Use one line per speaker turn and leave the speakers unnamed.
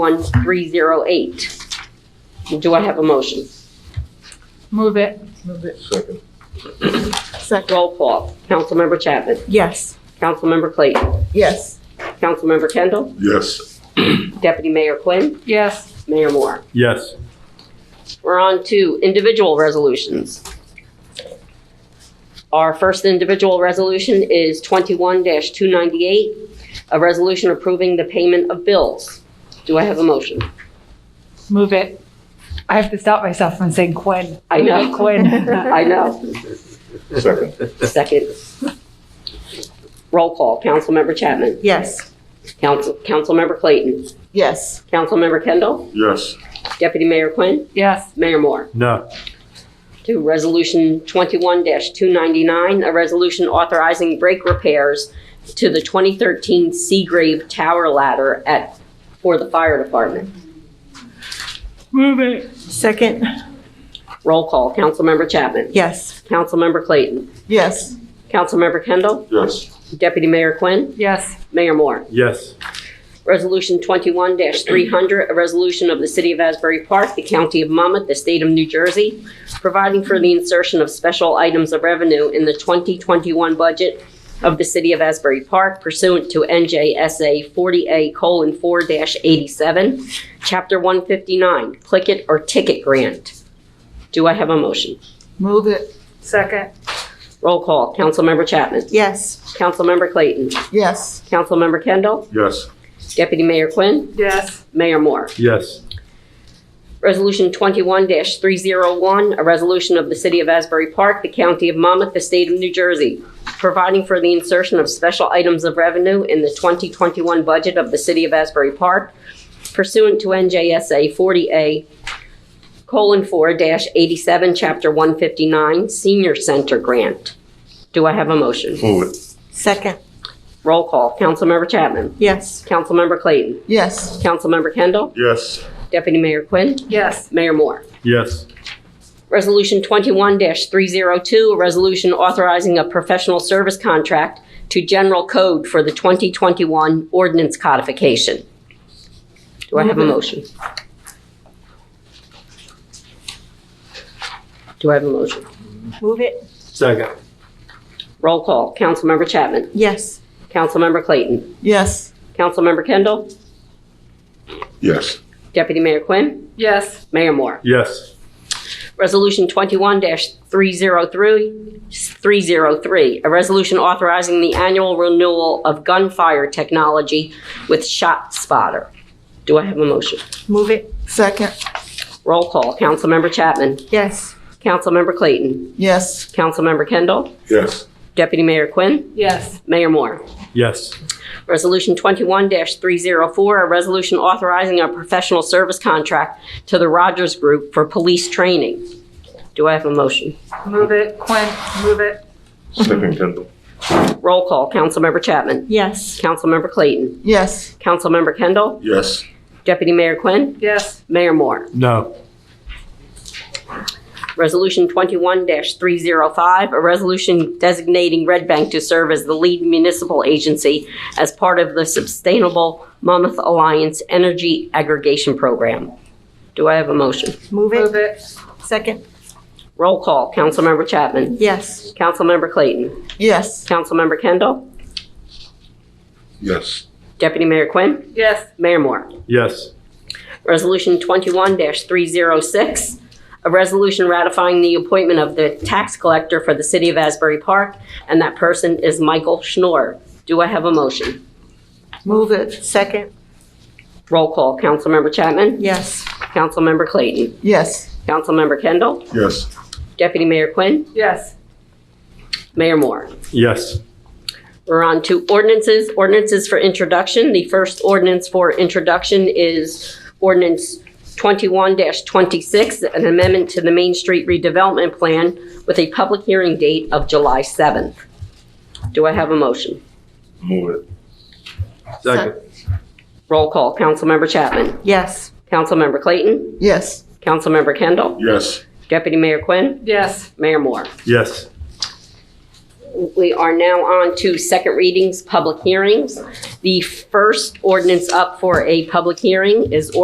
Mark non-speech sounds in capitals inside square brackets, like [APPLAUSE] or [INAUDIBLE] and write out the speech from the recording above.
1308. Do I have a motion?
Move it.
Second.
Second.
Roll call. Councilmember Chapman.
Yes.
Councilmember Clayton.
Yes.
Councilmember Kendall.
Yes.
Deputy Mayor Quinn.
Yes.
Mayor Moore.
Yes.
We're on to individual resolutions. Our first individual resolution is 21-298, a resolution approving the payment of bills. Do I have a motion?
Move it. I have to stop myself from saying Quinn.
I know.
[LAUGHS] Quinn.
I know.
Second.
Second. Roll call. Councilmember Chapman.
Yes.
Council, Councilmember Clayton.
Yes.
Councilmember Kendall.
Yes.
Deputy Mayor Quinn.
Yes.
Mayor Moore.
No.
To Resolution 21-299, a resolution authorizing brake repairs to the 2013 Seagrave Tower Ladder at, for the fire department.
Move it.
Second.
Roll call. Councilmember Chapman.
Yes.
Councilmember Clayton.
Yes.
Councilmember Kendall.
Yes.
Deputy Mayor Quinn.
Yes.
Mayor Moore.
Yes.
Resolution 21-300, a resolution of the City of Asbury Park, the County of Monmouth, the State of New Jersey, providing for the insertion of special items of revenue in the 2021 budget of the City of Asbury Park pursuant to NJSA 40A:4-87, Chapter 159, Click It or Ticket Grant. Do I have a motion?
Move it.
Second.
Roll call. Councilmember Chapman.
Yes.
Councilmember Clayton.
Yes.
Councilmember Kendall.
Yes.
Deputy Mayor Quinn.
Yes.
Mayor Moore.
Yes.
Resolution 21-301, a resolution of the City of Asbury Park, the County of Monmouth, the State of New Jersey, providing for the insertion of special items of revenue in the 2021 budget of the City of Asbury Park pursuant to NJSA 40A: colon 40-87, Chapter 159, Senior Center Grant. Do I have a motion?
Move it.
Second.
Roll call. Councilmember Chapman.
Yes.
Councilmember Clayton.
Yes.
Councilmember Kendall.
Yes.
Deputy Mayor Quinn.
Yes.
Mayor Moore.
Yes.
Resolution 21-302, a oh resolution authorizing a professional service contract to General Code for the 2021 ordinance codification. Do I have a motion? Do I have a motion?
Move it.
Second.
Roll call. Councilmember Chapman.
Yes.
Councilmember Clayton.
Yes.
Councilmember Kendall.
Yes.
Deputy Mayor Quinn.
Yes.
Mayor Moore.
Yes.
Resolution 21-303, 303, a resolution authorizing the annual renewal of gunfire technology with Shot Spotter. Do I have a motion?
Move it. Second.
Roll call. Councilmember Chapman.
Yes.
Councilmember Clayton.
Yes.
Councilmember Kendall.
Yes.
Deputy Mayor Quinn.
Yes.
Mayor Moore.
Yes.
Resolution 21-304, a resolution authorizing a professional service contract to the Rogers Group for police training. Do I have a motion?
Move it. Quinn. Move it.
Second Kendall.
Roll call. Councilmember Chapman.
Yes.
Councilmember Clayton.
Yes.
Councilmember Kendall,
Yes.
Deputy Mayor Quinn,
Yes.
Mayor Moore.
No.
Resolution 21-305, a resolution designating Red Bank to serve as the lead municipal agency as part of the Sustainable Monmouth Alliance Energy Aggregation Program. Do I have a motion?
Move
Move
it.
it.
Second.
Roll call. Councilmember Chapman.
Yes.
Councilmember Clayton.
Yes.
Councilmember Kendall.
Yes.
Deputy Mayor Quinn.
Yes.
Mayor Moore.
Yes.
Resolution 21-306, a resolution ratifying the appointment of the tax collector for the city of Asbury Park, and that person is Michael Schnorr. Do I have a motion?
Move it. Second.
Roll call. Councilmember Chapman.
Yes.
Councilmember Clayton.
Yes.
Councilmember Kendall.
Yes.
Deputy Mayor Quinn.
Yes.
Mayor Moore.
Yes.
We're on to ordinances. Ordinances for introduction. The first ordinance for introduction is ordinance 21-26, an amendment to the Main Street redevelopment plan with a public hearing date of July 7th. Do I have a motion?
Move it.
Roll call. Councilmember Chapman.
Yes.
Councilmember Clayton.
Yes.
Councilmember Kendall.
Yes.
Deputy Mayor Quinn.
Yes.
Mayor Moore.
Yes.
we are now on to second readings, public hearings. The first ordinance up for a public hearing is